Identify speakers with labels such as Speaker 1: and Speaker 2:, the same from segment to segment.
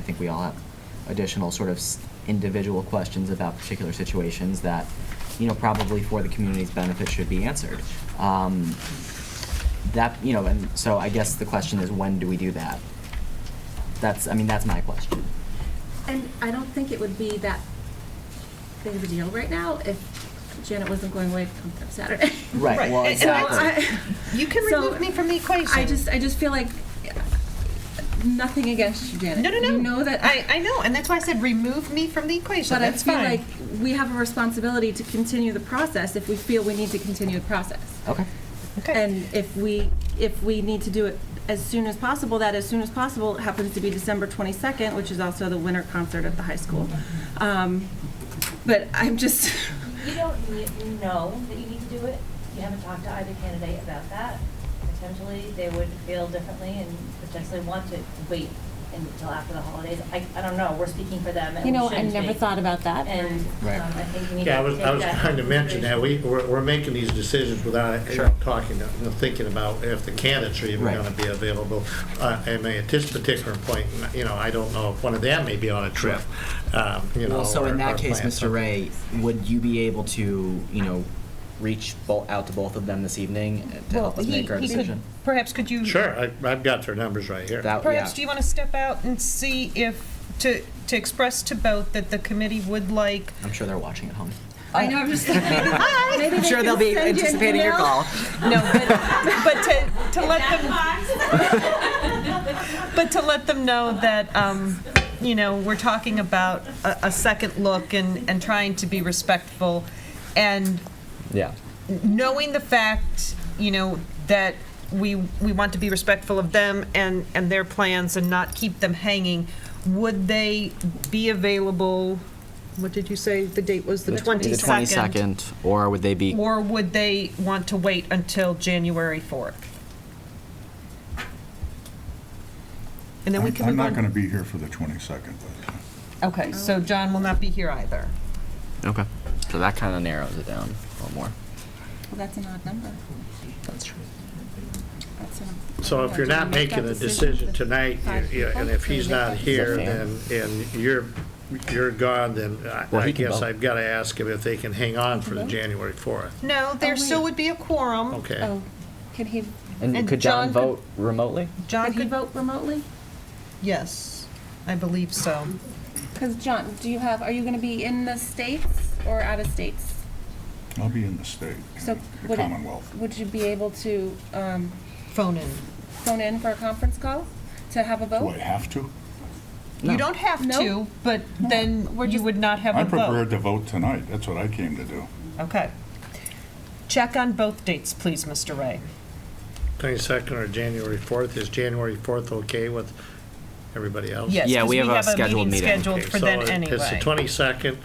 Speaker 1: think we all have additional sort of s- individual questions about particular situations that, you know, probably for the community's benefit should be answered. Um, That, you know, and so I guess the question is, when do we do that? That's, I mean, that's my question.
Speaker 2: And I don't think it would be that big of a deal right now if Janet wasn't going away come come Saturday.
Speaker 1: Right, well,
Speaker 3: and- and that's-
Speaker 1: exactly.
Speaker 3: You can
Speaker 2: So,
Speaker 3: remove me from the equation.
Speaker 2: I just, I just feel like, uh, nothing against you, Janet.
Speaker 3: No, no, no.
Speaker 2: You know that.
Speaker 3: I, I know, and that's why I said remove me from the equation.
Speaker 2: But I
Speaker 3: that's
Speaker 2: feel
Speaker 3: fine.
Speaker 2: like we have a responsibility to continue the process if we feel we need to continue the process.
Speaker 1: Okay,
Speaker 3: okay.
Speaker 2: And if we, if we need to do it as soon as possible, that as soon as possible happens to be December 22nd, which is also the winter concert at the high school. Um, But I'm just,
Speaker 4: You don't need, you know that you need to do it. You haven't talked to either candidate about that. Potentially, they would feel differently and potentially want to wait until after the holidays. I, I don't know, we're speaking for them and
Speaker 5: You
Speaker 4: we
Speaker 5: know, I
Speaker 4: shouldn't
Speaker 5: never
Speaker 4: be.
Speaker 5: thought about that.
Speaker 4: And um,
Speaker 1: Right.
Speaker 4: I think we need to take that.
Speaker 6: Yeah, I was, I was trying to mention that, we, we're, we're making these decisions without
Speaker 1: Sure.
Speaker 6: even talking, to- you know, thinking about if the candidates are even
Speaker 1: Right.
Speaker 6: gonna be available. Uh, I mean, at this particular point, you know, I don't know if one of them may be on a trip, um, you know.
Speaker 1: well, so
Speaker 6: or-
Speaker 1: in
Speaker 6: or
Speaker 1: that case,
Speaker 6: plan
Speaker 1: Mr.
Speaker 6: something.
Speaker 1: Ray, would you be able to, you know, reach bo- out to both of them this evening uh, to help us
Speaker 3: he-
Speaker 1: make our
Speaker 3: he could-
Speaker 1: decision?
Speaker 3: Perhaps could you?
Speaker 6: Sure, I, I've got their numbers right here.
Speaker 1: That-
Speaker 3: Perhaps
Speaker 1: yeah.
Speaker 3: do you want to step out and see if to to express to both that the committee would like
Speaker 1: I'm sure they're watching at home.
Speaker 2: I know, I'm just like, maybe, maybe
Speaker 1: I'm
Speaker 2: they
Speaker 1: sure they'll
Speaker 2: can
Speaker 1: be
Speaker 2: send you an
Speaker 1: anticipating your
Speaker 2: email.
Speaker 1: call.
Speaker 3: no, but but to to let them but to let them know that. Um, you know, we're talking about a, a second look and, and trying to be respectful and
Speaker 1: Yeah.
Speaker 3: knowing the fact, you know, that we, we want to be respectful of them and, and their plans and not keep them hanging, would they be available, what did you say the date was, the 22nd?
Speaker 1: The 22nd, or would they be
Speaker 3: Or would they want to wait until January 4th? And then we
Speaker 7: I'm
Speaker 3: can
Speaker 7: I'm
Speaker 3: move on.
Speaker 7: not going to be here for the 22nd, but uh,
Speaker 3: Okay, so John will not be here either.
Speaker 1: Okay. So that kind of narrows it down a little more.
Speaker 2: Well, that's an odd number.
Speaker 1: That's true.
Speaker 2: That's an-
Speaker 6: So if you're not
Speaker 2: Do we make
Speaker 6: making
Speaker 2: that
Speaker 6: a decision
Speaker 2: with
Speaker 6: tonight,
Speaker 2: five
Speaker 6: you- you-
Speaker 2: people?
Speaker 6: and if
Speaker 2: Do we
Speaker 6: he's
Speaker 2: make that
Speaker 6: not here,
Speaker 1: decision?
Speaker 6: then, and you're, you're gone, then I-
Speaker 1: Well, he
Speaker 6: I
Speaker 1: can
Speaker 6: guess
Speaker 1: vote.
Speaker 6: I've gotta ask him if they can hang on for the January fourth.
Speaker 3: No,
Speaker 2: Oh,
Speaker 3: there still
Speaker 2: wait.
Speaker 3: would be a quorum.
Speaker 6: Okay.
Speaker 2: Oh, can he,
Speaker 1: And,
Speaker 3: And
Speaker 1: could John,
Speaker 3: John
Speaker 1: vote remotely?
Speaker 3: John
Speaker 2: could he
Speaker 3: could,
Speaker 2: vote remotely?
Speaker 3: yes, I believe so.
Speaker 2: Because John, do you have, are you going to be in the states or out of states?
Speaker 7: I'll be in the state,
Speaker 2: So
Speaker 7: the
Speaker 2: would it-
Speaker 7: Commonwealth.
Speaker 2: Would you be able to um,
Speaker 3: Phone in.
Speaker 2: phone in for a conference call to have
Speaker 3: Oh.
Speaker 2: a
Speaker 7: Do
Speaker 2: vote?
Speaker 7: I have to?
Speaker 1: No.
Speaker 3: You don't have
Speaker 2: No.
Speaker 3: to, but then you would not have a
Speaker 7: I'm
Speaker 3: vote.
Speaker 7: prepared to vote tonight, that's what I came to do.
Speaker 3: Okay. Check on both dates, please, Mr. Ray.
Speaker 6: Twenty-second or January fourth, is January fourth okay with everybody else?
Speaker 3: Yes,
Speaker 1: Yeah,
Speaker 3: 'cause
Speaker 1: we have a scheduled meeting.
Speaker 3: scheduled
Speaker 6: Okay,
Speaker 3: for
Speaker 6: so
Speaker 3: then
Speaker 6: it- It's the
Speaker 3: anyway.
Speaker 6: twenty-second,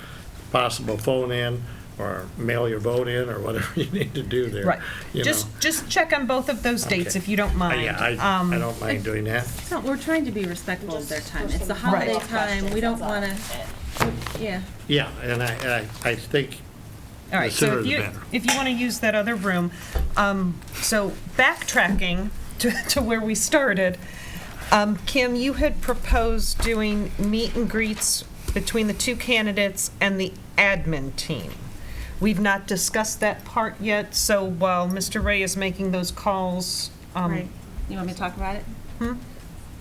Speaker 6: possible phone in, or mail your vote in, or whatever you need to do there.
Speaker 3: Right.
Speaker 6: you
Speaker 3: Just,
Speaker 6: know.
Speaker 3: just check on both of those dates
Speaker 6: Okay.
Speaker 3: if you don't
Speaker 6: Uh,
Speaker 3: mind.
Speaker 6: Yeah,
Speaker 3: Um,
Speaker 6: I, I don't mind doing that.
Speaker 2: No, we're trying to be respectful of their time. It's the holiday time. We don't want to, yeah.
Speaker 6: Yeah, and I, and I, I think,
Speaker 3: All right,
Speaker 6: the
Speaker 3: so
Speaker 6: sooner
Speaker 3: if
Speaker 6: the
Speaker 3: you,
Speaker 6: better.
Speaker 3: if you want to use that other room, um, so backtracking to, to where we started, um, Kim, you had proposed doing meet and greets between the two candidates and the admin team. We've not discussed that part yet, so while Mr. Ray is making those calls, um,
Speaker 2: Right. You want me to talk about it?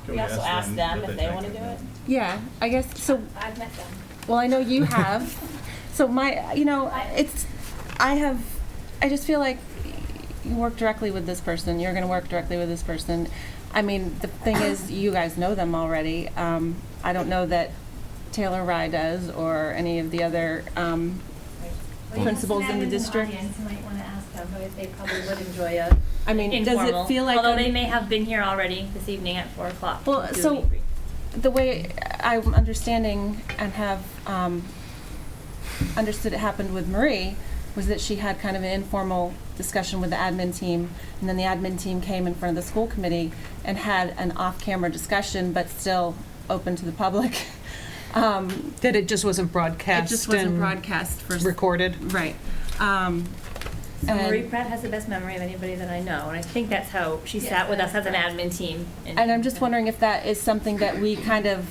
Speaker 8: We also asked them if they want to do it.
Speaker 2: Yeah, I guess, so
Speaker 4: I've met them.
Speaker 2: Well, I know you have. so my, you know, it's, I have, I just feel like you work directly with this person. You're going to work directly with this person. I mean, the thing is, you guys know them already. Um, I don't know that Taylor Rye does or any of the other. Um, Principals in the district.
Speaker 4: Well, you might want to ask them, but they probably would enjoy a
Speaker 2: I mean, does
Speaker 4: informal,
Speaker 2: it feel like
Speaker 4: although
Speaker 2: I'm-
Speaker 4: they may have been here already this evening at four o'clock.
Speaker 2: Well,
Speaker 4: to do a
Speaker 2: so-
Speaker 4: meet and greet.
Speaker 2: the way I'm understanding and have um, understood it happened with Marie was that she had kind of an informal discussion with the admin team, and then the admin team came in front of the school committee and had an off-camera discussion, but still open to the public. Um,
Speaker 3: that it just wasn't broadcast
Speaker 2: it just wasn't
Speaker 3: and
Speaker 2: broadcast for
Speaker 3: recorded.
Speaker 2: right. Um,
Speaker 4: So
Speaker 2: and-
Speaker 4: Marie Pratt has the best memory of anybody that I know, and I think that's how she sat with us as an admin team.
Speaker 2: and I'm just wondering if that is something that we kind of